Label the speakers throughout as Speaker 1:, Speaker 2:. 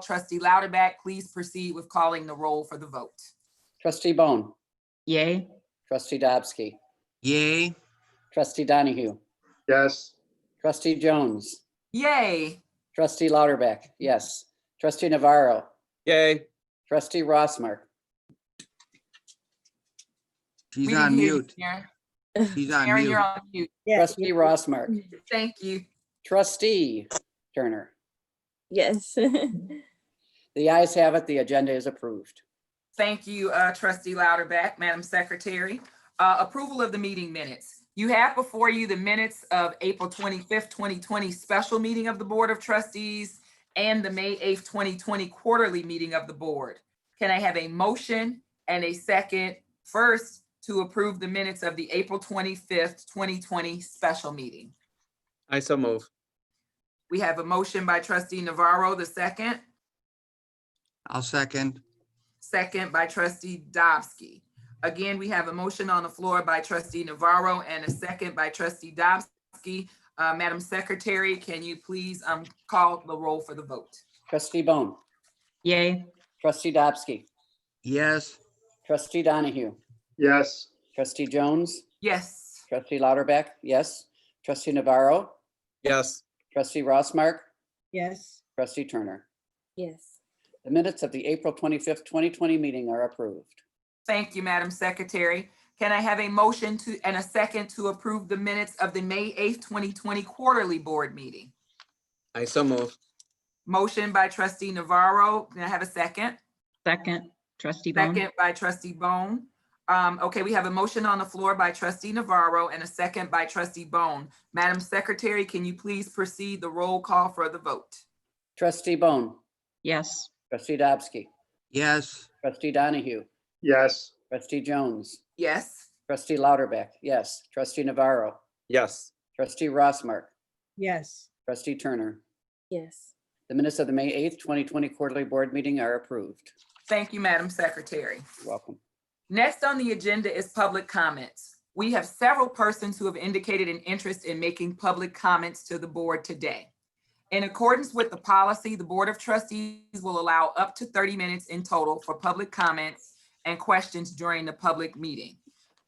Speaker 1: Trustee Lauterback, please proceed with calling the roll for the vote.
Speaker 2: Trustee Bone,
Speaker 3: Yay.
Speaker 2: trustee Dobbsky,
Speaker 4: Yay.
Speaker 2: trustee Donahue,
Speaker 5: Yes.
Speaker 2: trustee Jones,
Speaker 1: Yay,
Speaker 2: trustee Lauterback, yes. Trustee Navarro,
Speaker 5: Yay.
Speaker 2: trustee Rossmark,
Speaker 4: She's
Speaker 1: We didn't
Speaker 4: on
Speaker 1: hear you,
Speaker 4: mute.
Speaker 1: Sharon.
Speaker 4: She's on
Speaker 1: Sharon,
Speaker 4: mute.
Speaker 1: you're on mute.
Speaker 6: Yes,
Speaker 2: trustee Rossmark,
Speaker 1: Thank you.
Speaker 2: trustee Turner.
Speaker 6: yes.
Speaker 2: The ayes have it, the agenda is approved.
Speaker 1: Thank you, uh, trustee Lauterback, Madam Secretary. Uh, Approval of the meeting minutes. You have before you the minutes of April 25th, 2020 special meeting of the Board of Trustees and the May 8th, 2020 quarterly meeting of the board. Can I have a motion and a second first to approve the minutes of the April 25th, 2020 special meeting?
Speaker 5: I so move.
Speaker 1: We have a motion by trustee Navarro, the second,
Speaker 4: I'll second.
Speaker 1: second by trustee Dobbsky. Again, we have a motion on the floor by trustee Navarro and a second by trustee Dobbsky. Uh, Madam Secretary, can you please, um, call the roll for the vote?
Speaker 2: Trustee Bone,
Speaker 3: Yay.
Speaker 2: trustee Dobbsky,
Speaker 4: Yes.
Speaker 2: trustee Donahue,
Speaker 5: Yes.
Speaker 2: trustee Jones,
Speaker 1: Yes,
Speaker 2: trustee Lauterback, yes. Trustee Navarro,
Speaker 5: Yes.
Speaker 2: trustee Rossmark,
Speaker 6: Yes.
Speaker 2: trustee Turner.
Speaker 6: Yes.
Speaker 2: The minutes of the April 25th, 2020 meeting are approved.
Speaker 1: thank you, Madam Secretary. Can I have a motion to, and a second to approve the minutes of the May eighth, twenty twenty quarterly board meeting?
Speaker 5: I so move.
Speaker 1: Motion by trustee Navarro. Can I have a second?
Speaker 3: Second, trustee Bone.
Speaker 1: Second by trustee Bone. Um, okay, we have a motion on the floor by trustee Navarro and a second by trustee Bone. Madam Secretary, can you please proceed the roll call for the vote?
Speaker 2: Trustee Bone,
Speaker 3: Yes.
Speaker 2: trustee Dobbsky,
Speaker 4: Yes.
Speaker 2: trustee Donahue,
Speaker 5: Yes.
Speaker 2: trustee Jones,
Speaker 1: Yes,
Speaker 2: trustee Lauterback, yes. Trustee Navarro,
Speaker 5: Yes.
Speaker 2: trustee Rossmark,
Speaker 6: Yes.
Speaker 2: trustee Turner.
Speaker 6: Yes.
Speaker 2: The minutes of the May 8th, 2020 quarterly board meeting are approved.
Speaker 1: thank you, Madam Secretary.
Speaker 2: You're Welcome.
Speaker 1: Next on the agenda is public comments. We have several persons who have indicated an interest in making public comments to the board today. In accordance with the policy, the Board of Trustees will allow up to 30 minutes in total for public comments and questions during the public meeting.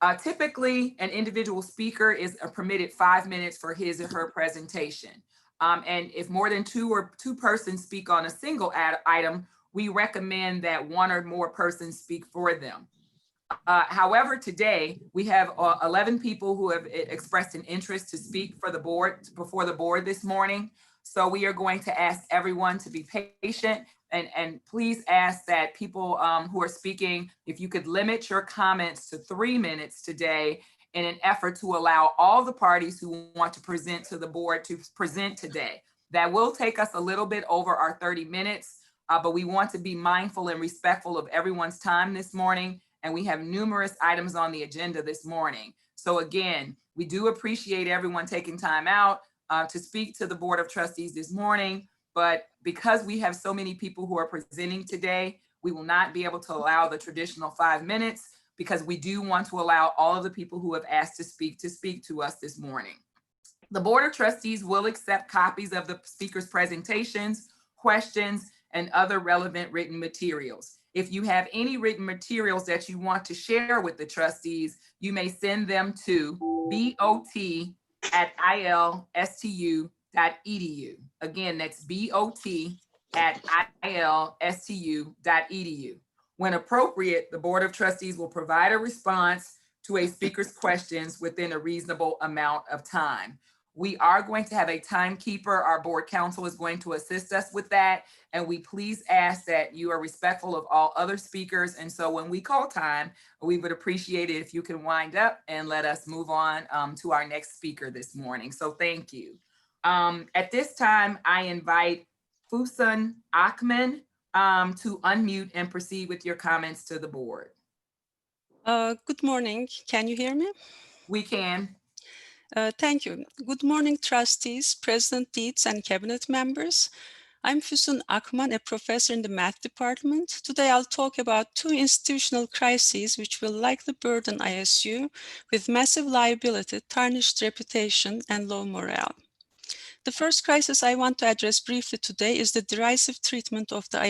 Speaker 1: Uh, Typically, an individual speaker is a permitted five minutes for his or her presentation. Um, And if more than two or two persons speak on a single ad- item, we recommend that one or more persons speak for them. Uh, However, today, we have uh, 11 people who have e- expressed an interest to speak for the board, before the board this morning. So we are going to ask everyone to be patient and, and please ask that people um, who are speaking, if you could limit your comments to three minutes today in an effort to allow all the parties who want to present to the board to present today. That will take us a little bit over our 30 minutes, uh, but we want to be mindful and respectful of everyone's time this morning and we have numerous items on the agenda this morning. So again, we do appreciate everyone taking time out uh, to speak to the Board of Trustees this morning. But because we have so many people who are presenting today, we will not be able to allow the traditional five minutes because we do want to allow all of the people who have asked to speak to speak to us this morning. The Board of Trustees will accept copies of the speaker's presentations, questions, and other relevant written materials. If you have any written materials that you want to share with the trustees, you may send them to bot@ilstu.edu. E Again, that's bot@ilstu.edu. E When appropriate, the Board of Trustees will provide a response to a speaker's questions within a reasonable amount of time. We are going to have a timekeeper. Our board counsel is going to assist us with that. And we please ask that you are respectful of all other speakers. And so when we call time, we would appreciate it if you can wind up and let us move on um, to our next speaker this morning. So thank you. Um, At this time, I invite Fusan Akman um, to unmute and proceed with your comments to the board.
Speaker 7: Uh, Good morning. Can you hear me?
Speaker 1: We can.
Speaker 7: Uh, Thank you. Good morning, trustees, President Dietz, and cabinet members. I'm Füsun Akman, a professor in the math department. Today, I'll talk about two institutional crises which will likely burden ISU with massive liability, tarnished reputation, and low morale. The first crisis I want to address briefly today is the derisive treatment of the